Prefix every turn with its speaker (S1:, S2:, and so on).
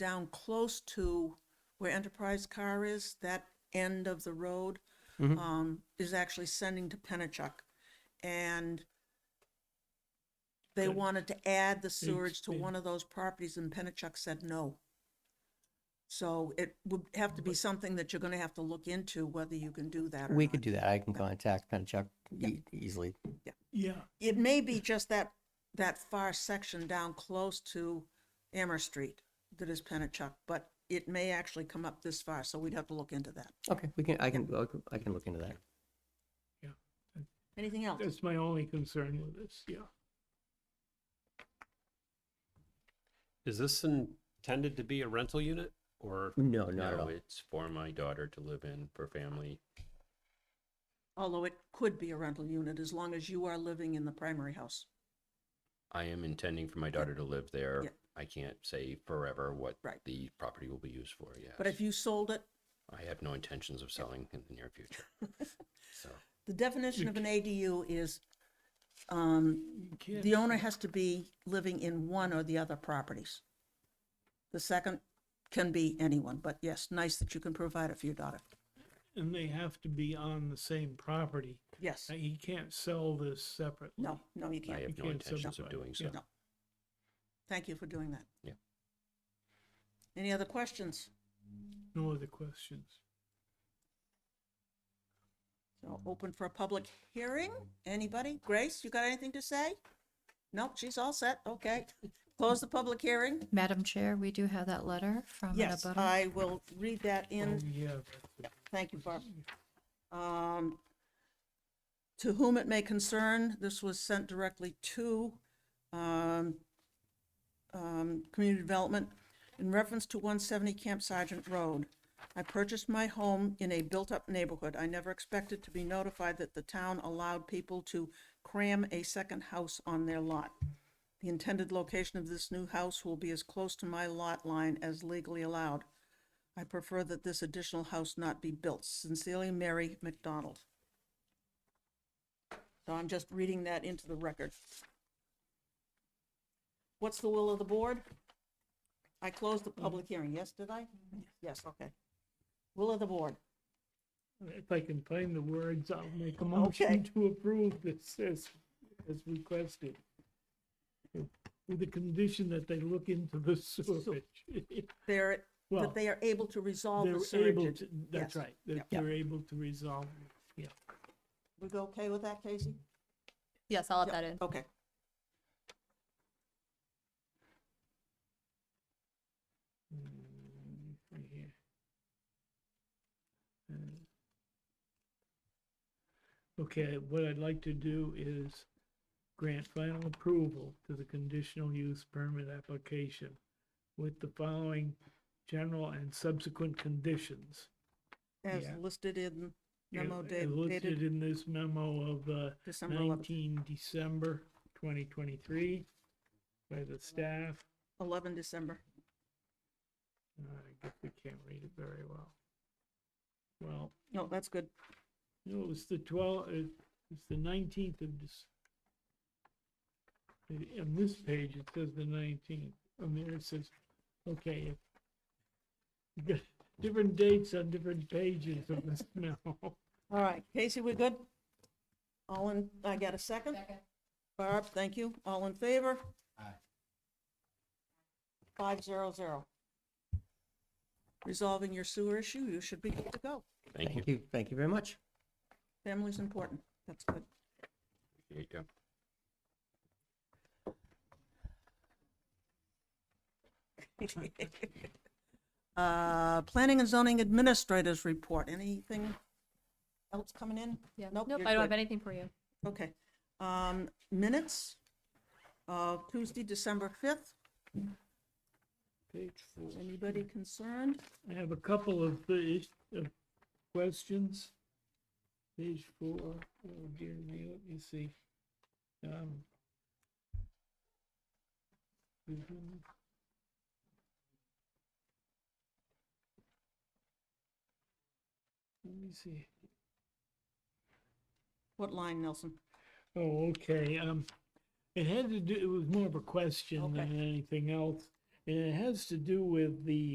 S1: down close to where Enterprise Car is, that end of the road,
S2: Mm-hmm.
S1: um, is actually sending to Pennachuck. And they
S2: Good.
S1: wanted to add the sewage to
S2: Speed, speed.
S1: one of those properties and Pennachuck said no. So it would have to be something that you're gonna have to look into whether you can do that or
S3: We could
S1: not.
S3: do that. I can contact Penachuk e- easily.
S2: Yeah,
S1: It may be just that, that far section down close to Amherst Street that is Pennachuck, but it may actually come up this far, so we'd have to look into that.
S3: Okay, we can, I can, I can- I can look into that.
S1: Anything else?
S2: that's my only concern with this, yeah.
S4: Is this intended to be a rental unit or?
S3: No, not at all.
S5: it's for my daughter to live in for family.
S1: Although it could be a rental unit as long as you are living in the primary house.
S5: I am intending for my daughter to live
S1: Yeah.
S5: there. I can't say forever what
S1: Right.
S5: the property will be used for yet.
S1: But if you sold it,
S5: I have no intentions of selling in the near future. So,
S1: the definition of an ADU is, um,
S2: You can't-
S1: the owner has to be living in one or the other properties. The second can be anyone, but yes, nice that you can provide it for your daughter.
S2: And they have to be on the same property.
S1: Yes.
S2: Uh, He can't sell this separately.
S1: No, no, you
S5: I
S1: can't.
S5: have no
S2: can't
S5: intentions of
S2: subdivide,
S5: doing so.
S2: yeah.
S1: No. Thank you for doing that.
S5: Yeah.
S1: Any other questions?
S2: No other questions.
S1: So open for a public hearing? Anybody? Grace, you got anything to say? Nope, she's all set. Okay. Close the public hearing?
S6: Madam Chair, we do have that letter from an
S1: Yes,
S6: abutter.
S1: I will read that in.
S2: Oh, Yeah, that's it.
S1: Thank you, Barb. Um, To whom it may concern, this was sent directly to um, um, Community Development in reference to 170 Camp Sargent Road. I purchased my home in a built-up neighborhood. I never expected to be notified that the town allowed people to cram a second house on their lot. The intended location of this new house will be as close to my lot line as legally allowed. I prefer that this additional house not be built. Sincerely, Mary McDonald. So I'm just reading that into the record. What's the will of the board? I closed the public hearing, yes, did I? Yes, okay. Will of the board.
S2: If I can find the words, I'll make a motion to approve this as, as requested. With the condition that they look into the sewage.
S1: They're,
S2: Well,
S1: that they are able to resolve the
S2: They're able
S1: surge.
S2: to, that's right, that
S3: Yeah.
S2: they're able to resolve, it, yeah.
S1: We go okay with that, Casey?
S6: Yes, I'll add
S1: Yep, Oh,
S6: that in.
S1: Okay.
S2: Mm, right here. Uh, Okay, what I'd like to do is grant final approval to the conditional use permit application with the following general and subsequent conditions.
S1: As
S2: Yeah.
S1: listed in
S2: Yeah,
S1: memo da-
S2: uh, Listed
S1: dated
S2: in this memo of uh,
S1: December 11th,
S2: 19 December 2023 by the staff.
S1: 11 December.
S2: Uh, I guess we can't read it very well. Well,
S1: No, that's good.
S2: No, it was the twelve, it's the nineteenth of this. On this page, it says the nineteenth, on there it says, okay. if- you got Different dates on different pages of this memo.
S1: All right, Casey, we're good? All in, I got a second? Barb, thank you. All in favor? Aye. Five zero zero. Resolving your sewer issue, you should be good to go.
S5: thank you.
S3: Thank you, thank you very much.
S1: Family's important, that's good.
S5: There you go.
S1: Uh, Planning and zoning administrators report, anything else coming in?
S6: Yeah.
S1: Nope,
S6: Nope,
S1: you're
S6: I don't
S1: good.
S6: have anything for you.
S1: Okay, um, minutes of Tuesday, December fifth.
S2: Page four.
S1: Anybody concerned?
S2: I have a couple of the, is- of questions. Page four, oh dear me, let me see. Um, mhm. Let me see.
S1: What line, Nelson?
S2: Oh, okay, um, it had to do, it was more of a question than anything else. And it has to do with the